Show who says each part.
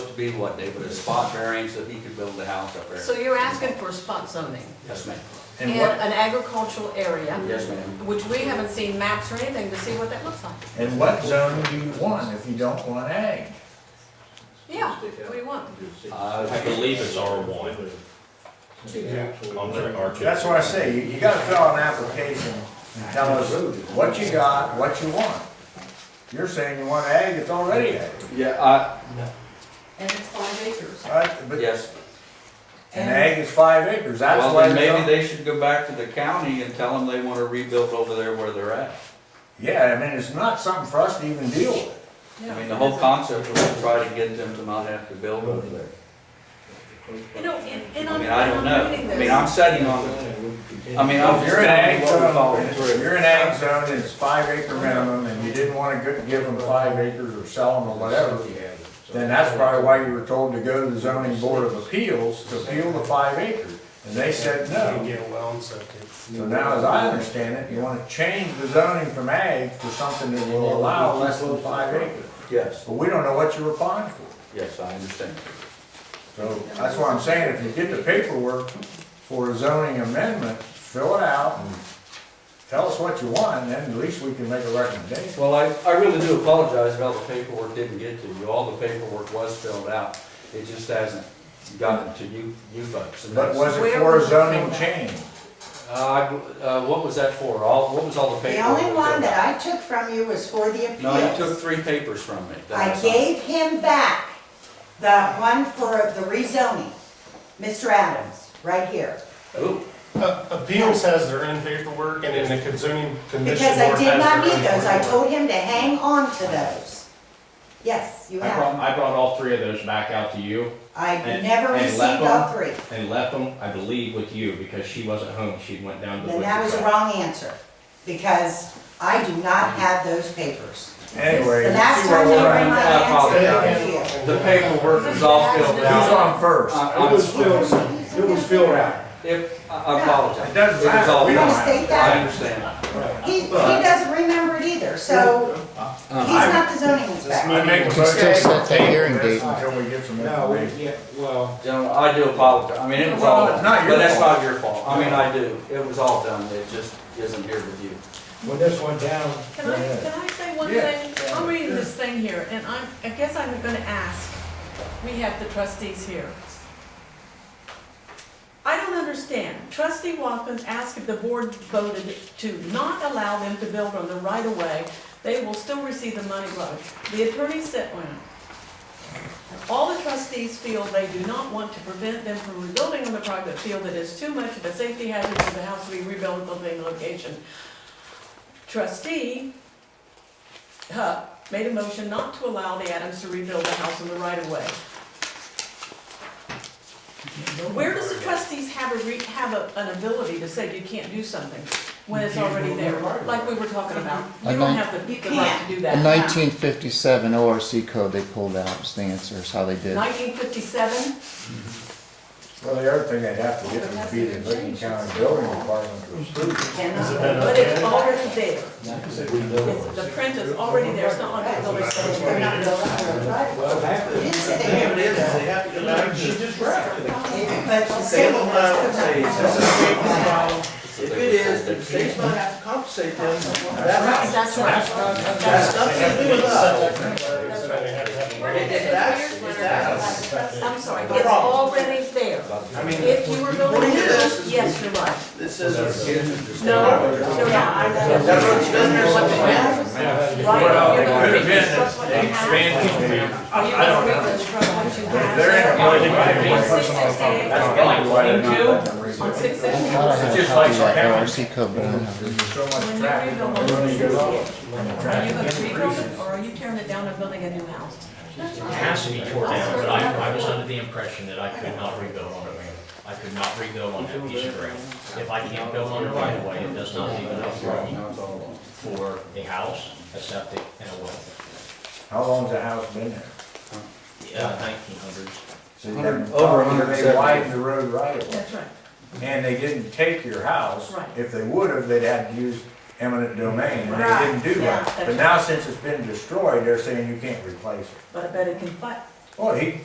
Speaker 1: be what they put a spot variance that he could build a house up
Speaker 2: So
Speaker 1: there.
Speaker 2: you're asking for spot zoning
Speaker 1: Yes, ma'am.
Speaker 2: in
Speaker 3: And what,
Speaker 2: an agricultural area,
Speaker 1: Yes, ma'am.
Speaker 2: which we haven't seen maps or anything to see what that looks like.
Speaker 3: and what zone do you want if you don't want ag?
Speaker 2: Yeah, what do you want?
Speaker 1: Uh,
Speaker 4: I believe it's R1 on their R2.
Speaker 3: That's what I say, you, you gotta fill out an application and tell us what you got, what you want. You're saying you want ag, it's already ag,
Speaker 1: Yeah, I,
Speaker 5: And it's five acres.
Speaker 3: right? But,
Speaker 1: yes.
Speaker 3: and ag is five acres, that's
Speaker 1: Well,
Speaker 3: why
Speaker 1: then
Speaker 3: they
Speaker 1: maybe
Speaker 3: don't.
Speaker 1: they should go back to the county and tell them they want to rebuild over there where they're at.
Speaker 3: Yeah, I mean, it's not something for us to even deal with.
Speaker 1: I mean, the whole concept was to try to get them to not have to build over there.
Speaker 2: You know, and, and
Speaker 1: I
Speaker 2: I'm,
Speaker 1: mean, I don't
Speaker 2: and
Speaker 1: know.
Speaker 2: I'm reading
Speaker 1: I
Speaker 2: this.
Speaker 1: mean, I'm setting on, I mean, I'm just
Speaker 3: If you're in
Speaker 1: telling
Speaker 3: ag
Speaker 1: you what we're following
Speaker 3: zone,
Speaker 1: through.
Speaker 3: you're in ag zone, it's five acre minimum, and you didn't wanna go- give them five acres or sell them or whatever, then that's probably why you were told to go to the zoning board of appeals to appeal the five acres. And they said
Speaker 6: You
Speaker 3: no.
Speaker 6: get a well and septic.
Speaker 3: So now, as I understand it, you wanna change the zoning from ag to something that will allow less than five acres.
Speaker 1: Yes,
Speaker 3: But we don't know what you're applying for.
Speaker 1: yes, I understand.
Speaker 3: So that's why I'm saying, if you get the paperwork for a zoning amendment, fill it out and tell us what you want, and then at least we can make a recommendation.
Speaker 1: Well, I, I really do apologize about the paperwork didn't get to you. All the paperwork was filled out. It just hasn't gotten to you, you folks. and
Speaker 3: But
Speaker 1: that's-
Speaker 3: was it
Speaker 2: Where
Speaker 3: for
Speaker 2: was
Speaker 3: a
Speaker 2: it
Speaker 3: zoning
Speaker 2: filled out?
Speaker 3: change?
Speaker 1: Uh, I bl- uh, what was that for? All, what was all the
Speaker 5: The
Speaker 1: paperwork?
Speaker 5: only one that I took from you was for the appeals.
Speaker 1: No, you took three papers from me. that
Speaker 5: I
Speaker 1: signed.
Speaker 5: gave him back the one for the rezoning, Mr. Adams, right here.
Speaker 1: Ooh,
Speaker 6: Uh, Appeals has their own paperwork and then the conzoning commission.
Speaker 5: Because I
Speaker 6: board
Speaker 5: did
Speaker 6: has
Speaker 5: not
Speaker 6: their
Speaker 5: need
Speaker 6: own
Speaker 5: those, I
Speaker 6: paperwork.
Speaker 5: told him to hang on to those. Yes, you
Speaker 4: I
Speaker 5: have.
Speaker 4: brought, I brought all three of those back out to you
Speaker 5: I
Speaker 4: and-
Speaker 5: never
Speaker 4: and
Speaker 5: received
Speaker 4: left
Speaker 5: all three.
Speaker 4: and left them, I believe, with you because she wasn't home. She went down to the.
Speaker 5: Then that was a wrong answer, because I do not have those papers.
Speaker 3: Anyway.
Speaker 5: The last
Speaker 3: see where
Speaker 5: time they
Speaker 3: we're
Speaker 5: bring
Speaker 3: at.
Speaker 5: my
Speaker 1: I
Speaker 5: answer,
Speaker 1: apologize.
Speaker 5: they refused.
Speaker 1: The paperwork was all filled
Speaker 3: Who's
Speaker 1: out.
Speaker 3: on first?
Speaker 1: I-
Speaker 7: It
Speaker 1: I'm-
Speaker 7: was filled, it was filled out.
Speaker 1: If, I- I apologize.
Speaker 3: It doesn't
Speaker 1: was
Speaker 3: matter.
Speaker 1: all
Speaker 3: We
Speaker 5: don't
Speaker 1: filled
Speaker 5: have
Speaker 1: out.
Speaker 5: to.
Speaker 1: I understand.
Speaker 5: He, he doesn't remember it either, so he's not the zoning inspector.
Speaker 3: I make a
Speaker 8: can still set that hearing date.
Speaker 3: Until we get some
Speaker 7: No,
Speaker 3: information.
Speaker 7: we, yeah, well,
Speaker 1: Gentlemen, I do apologize. I mean, it was all,
Speaker 3: Well, not your
Speaker 1: but that's
Speaker 3: fault.
Speaker 1: not your fault. I mean, I do. It was all done. It just isn't here with you.
Speaker 7: when this went down,
Speaker 2: Can I, can I say one
Speaker 3: Yeah.
Speaker 2: thing? I'm reading this thing here, and I'm, I guess I'm gonna ask, we have the trustees here. I don't understand, trustee Watkins asked if the board voted to not allow them to build on the right of way, they will still receive the money loan. The attorney sent one. All the trustees feel they do not want to prevent them from rebuilding on the private field that is too much of a safety hazard for the house to be rebuilt at the same location. Trustee Huck made a motion not to allow the Adams to rebuild the house in the right of way. Where does the trustees have a re, have a, an ability to say you can't do something when it's already there? Like we were talking about, you don't have the, the right to do
Speaker 8: In
Speaker 2: that.
Speaker 8: nineteen fifty-seven ORC code, they pulled out, was the answer, is how they did.
Speaker 2: Nineteen fifty-seven?
Speaker 3: Well, the other thing they'd have to get them to be the Lincoln County Building Department to approve.
Speaker 2: But it's already there. It's- The print is already there, it's not like the building
Speaker 5: They're not building on the right.
Speaker 7: well, half of
Speaker 5: You
Speaker 7: it.
Speaker 5: didn't say they never did that.
Speaker 7: half of it, she just wrapped it.
Speaker 5: But the state will not.
Speaker 1: If it is, the state's not
Speaker 2: That's right.
Speaker 6: That's nothing to do with us. So they have to have a
Speaker 2: It-
Speaker 6: variance.
Speaker 2: it- I'm sorry, it's already there.
Speaker 6: I mean,
Speaker 2: If you were building, a house, yes, you're right. No, no, no, I don't. Right.
Speaker 3: Well, they
Speaker 2: You're gonna
Speaker 3: could have
Speaker 2: reconstruct what
Speaker 3: been
Speaker 2: you have.
Speaker 3: expanded.
Speaker 2: Are you
Speaker 3: I don't
Speaker 2: gonna
Speaker 3: know.
Speaker 2: reconstruct what you
Speaker 3: If they're in a
Speaker 2: have?
Speaker 3: building right away.
Speaker 2: On six sixty-eight,
Speaker 3: That's probably why they're not letting them
Speaker 2: on
Speaker 3: rezone.
Speaker 2: six
Speaker 8: I thought I
Speaker 2: sixty-eight.
Speaker 8: had a
Speaker 3: It's just like
Speaker 8: copy of that
Speaker 3: your
Speaker 8: ORC code, but I don't have it.
Speaker 3: There's so much
Speaker 2: When you
Speaker 3: traffic.
Speaker 2: rebuild
Speaker 3: on the road.
Speaker 2: on six sixty-eight, are you gonna rebuild it, or are you tearing it down and building a new house?
Speaker 9: It has to be torn down, but I, I was under the impression that I could not rebuild on it. I could not rebuild on that piece of ground. If I can't build on it right away, it does not leave enough room for a house, a septic, and a well.
Speaker 3: How long's the house been there?
Speaker 9: Uh, Nineteen hundreds.
Speaker 3: So you haven't-
Speaker 1: Over a hundred and
Speaker 3: They
Speaker 1: seventy.
Speaker 3: widened the road right away.
Speaker 2: That's right.
Speaker 3: And they didn't take your house.
Speaker 2: Right.
Speaker 3: If they would have, they'd had to use eminent domain, and they
Speaker 5: Right,
Speaker 3: didn't do
Speaker 2: yeah,
Speaker 3: that.
Speaker 2: that's
Speaker 3: But now since it's been destroyed, they're saying you can't replace it.
Speaker 2: But I bet it can fight,
Speaker 3: Well, he,